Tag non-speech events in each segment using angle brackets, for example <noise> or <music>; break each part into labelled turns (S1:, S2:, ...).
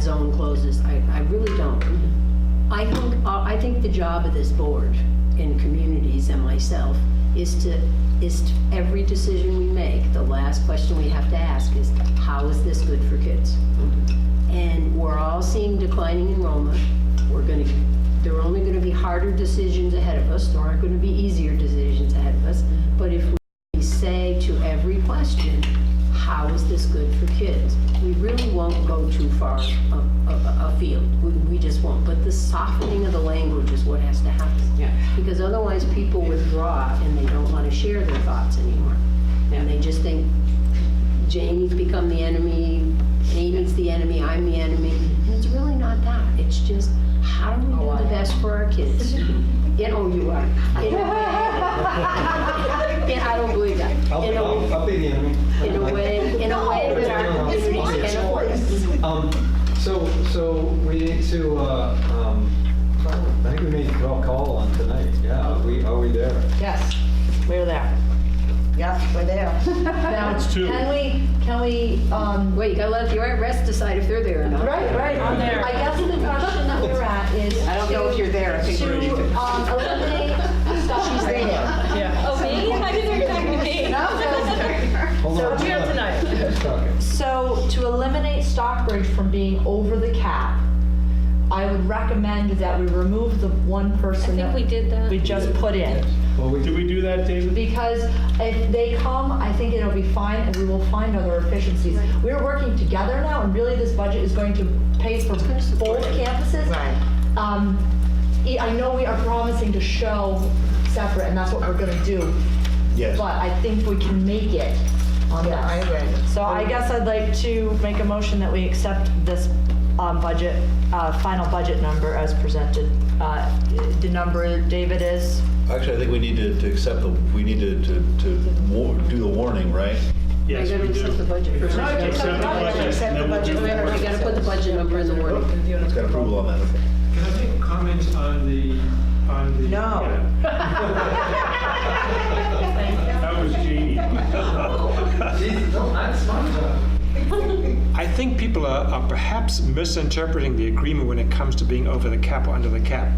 S1: zone closes, I, I really don't. I think, uh, I think the job of this board and communities and myself is to, is to, every decision we make, the last question we have to ask is, how is this good for kids? And we're all seeing declining enrollment. We're going to, there are only going to be harder decisions ahead of us. There aren't going to be easier decisions ahead of us. But if we say to every question, how is this good for kids? We really won't go too far a- a- afield. We, we just won't. But the softening of the language is what has to happen.
S2: Yeah.
S1: Because otherwise, people withdraw and they don't want to share their thoughts anymore.
S2: Yeah.
S1: And they just think, Jamie's become the enemy, Amy's the enemy, I'm the enemy. And it's really not that. It's just, how do we
S2: Oh, I
S1: do the
S2: am.
S1: best for our kids? You know you are. You know, And I don't believe that.
S3: I'll be,
S1: In
S3: I'll,
S1: a,
S3: I'll be the enemy.
S1: in a way, in a way that our
S3: No, it's my
S1: communities can afford.
S3: Um, so, so we need to, uh, um, I think we made a call on tonight, yeah, are we, are we there?
S4: Yes, we're there. Yes, we're there.
S1: Now,
S4: Can we, can we, um,
S1: Wait, you gotta let the rest decide if they're there or not.
S4: right, right.
S2: I'm there.
S4: I guess the question that we're at is.
S2: I don't know if you're there, I think
S4: To,
S2: we're leaving.
S4: to, um, eliminate stuff. She's there.
S5: Oh, me? I didn't recognize me.
S3: Hold
S4: So
S3: on.
S4: we're
S5: tonight.
S3: Let's talk it.
S4: So to eliminate Stockbridge from being over the cap, I would recommend that we remove the one
S5: I
S4: person
S5: think we
S4: that
S5: did that.
S4: we just put in.
S3: Well, we,
S6: Did we do that, David?
S4: Because if they come, I think it'll be fine, and we will find other efficiencies. We're working together now, and really, this budget is going to pay for both campuses. Um, e- I know we are promising to show separate, and that's what we're gonna do. Yes. But I think we can make it on this.
S7: I agree.
S4: So I guess I'd like to make a motion that we accept this um, budget, uh, final budget number as presented. Uh, The number, David, is?
S8: Actually, I think we need to, to accept the, we need to, to, to war- do the warning, right?
S6: Yes,
S1: gotta
S6: we do.
S1: accept the budget first.
S6: Accept the
S1: Accept the
S6: budget,
S7: budget.
S6: and then we'll do the
S1: You
S6: warning.
S1: gotta put the budget number in the word.
S8: It's got approval on that.
S6: Can I make comments on the, on the?
S7: No.
S6: Yeah. That was Janie.
S3: Jeez, no, that's my job.
S9: I think people are, are perhaps misinterpreting the agreement when it comes to being over the cap or under the cap,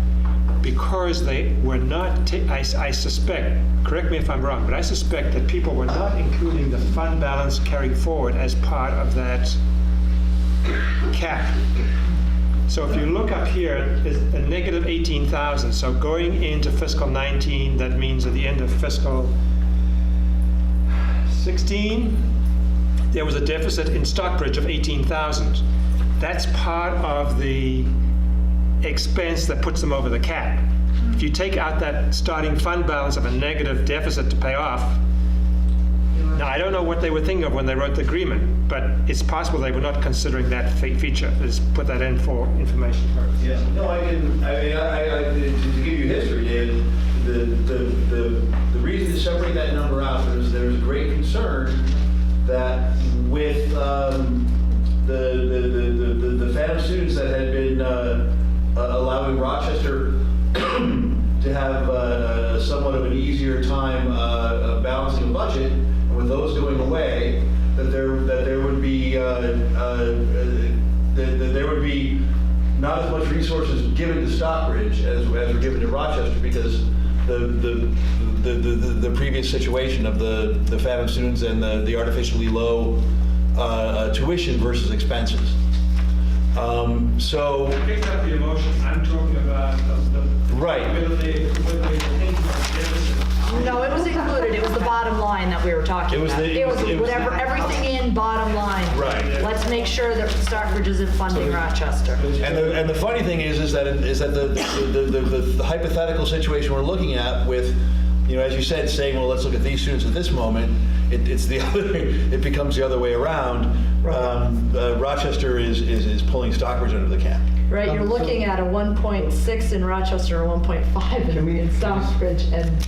S9: because they were not. ta- I, I suspect. Correct me if I'm wrong, but I suspect that people were not including the fund balance carried forward as part of that cap. So if you look up here, it's a negative 18,000. So going into fiscal 19, that means at the end of fiscal 16, there was a deficit in Stockbridge of 18,000. That's part of the expense that puts them over the cap. If you take out that starting fund balance of a negative deficit to pay off, now, I don't know what they were thinking of when they wrote the agreement, but it's possible they were not considering that fe- feature. Let's put that in for information purposes.
S10: Yeah, no, I can, I mean, I, I- I, to to give you history, David, the, the, the, the reason to separate that number out is there was great concern that with, um, the, the, the- the, the, the phantom students that had been, uh, uh, allowing Rochester to have, uh, somewhat of an easier time, uh, uh, balancing a budget, and with those going away, that there, that there would be, uh, uh, that, that there would be not as much resources given to Stockbridge as, as were given to Rochester because the, the, the, the, the previous situation of the, the Fathom students and the, the artificially low uh, uh, tuition versus expenses. Um, so,
S9: Pick up the emotion. I'm talking about the,
S10: right.
S9: they, whether they think about deficit.
S4: No, it was included, it was the bottom line that we were talking
S10: It was
S4: about.
S10: the- it
S4: It was
S10: was- it was
S4: whatever,
S10: the-
S4: everything in, bottom line.
S10: Right.
S4: Let's make sure that Stockbridge isn't funding Rochester.
S10: And the, and the funny thing is, is that, it- is that the, the, the, the- the hypothetical situation we're looking at with, you know, as you said, saying, well, let's look at these students at this moment, it, it's the <laughs> other, it becomes the other way around. Um, uh, Rochester is, is, is pulling Stockbridge under the cap.
S4: Right, you're looking at a 1.6 in Rochester, a 1.5 in- in Stockbridge, and,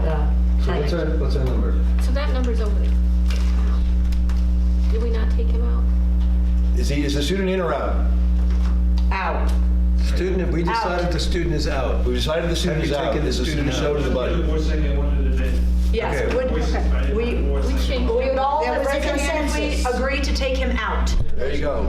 S4: uh,
S3: So what's our, what's our number?
S5: So that number's over. Did we not take him out?
S10: Is he, is the student in or out?
S4: out.
S7: Student, we
S4: Out.
S7: decided the student is out.
S10: We decided the student
S7: Have
S10: is
S7: you
S10: out.
S7: taken the
S10: Is the
S7: student
S10: student showed
S7: out?
S10: to the budget?
S9: One second, I wanted to then-
S4: Yes, would,
S9: I
S4: we,
S9: didn't know what
S5: We
S9: second.
S5: changed.
S4: we would all,
S7: There was a
S4: agree to take him out.
S10: There you go.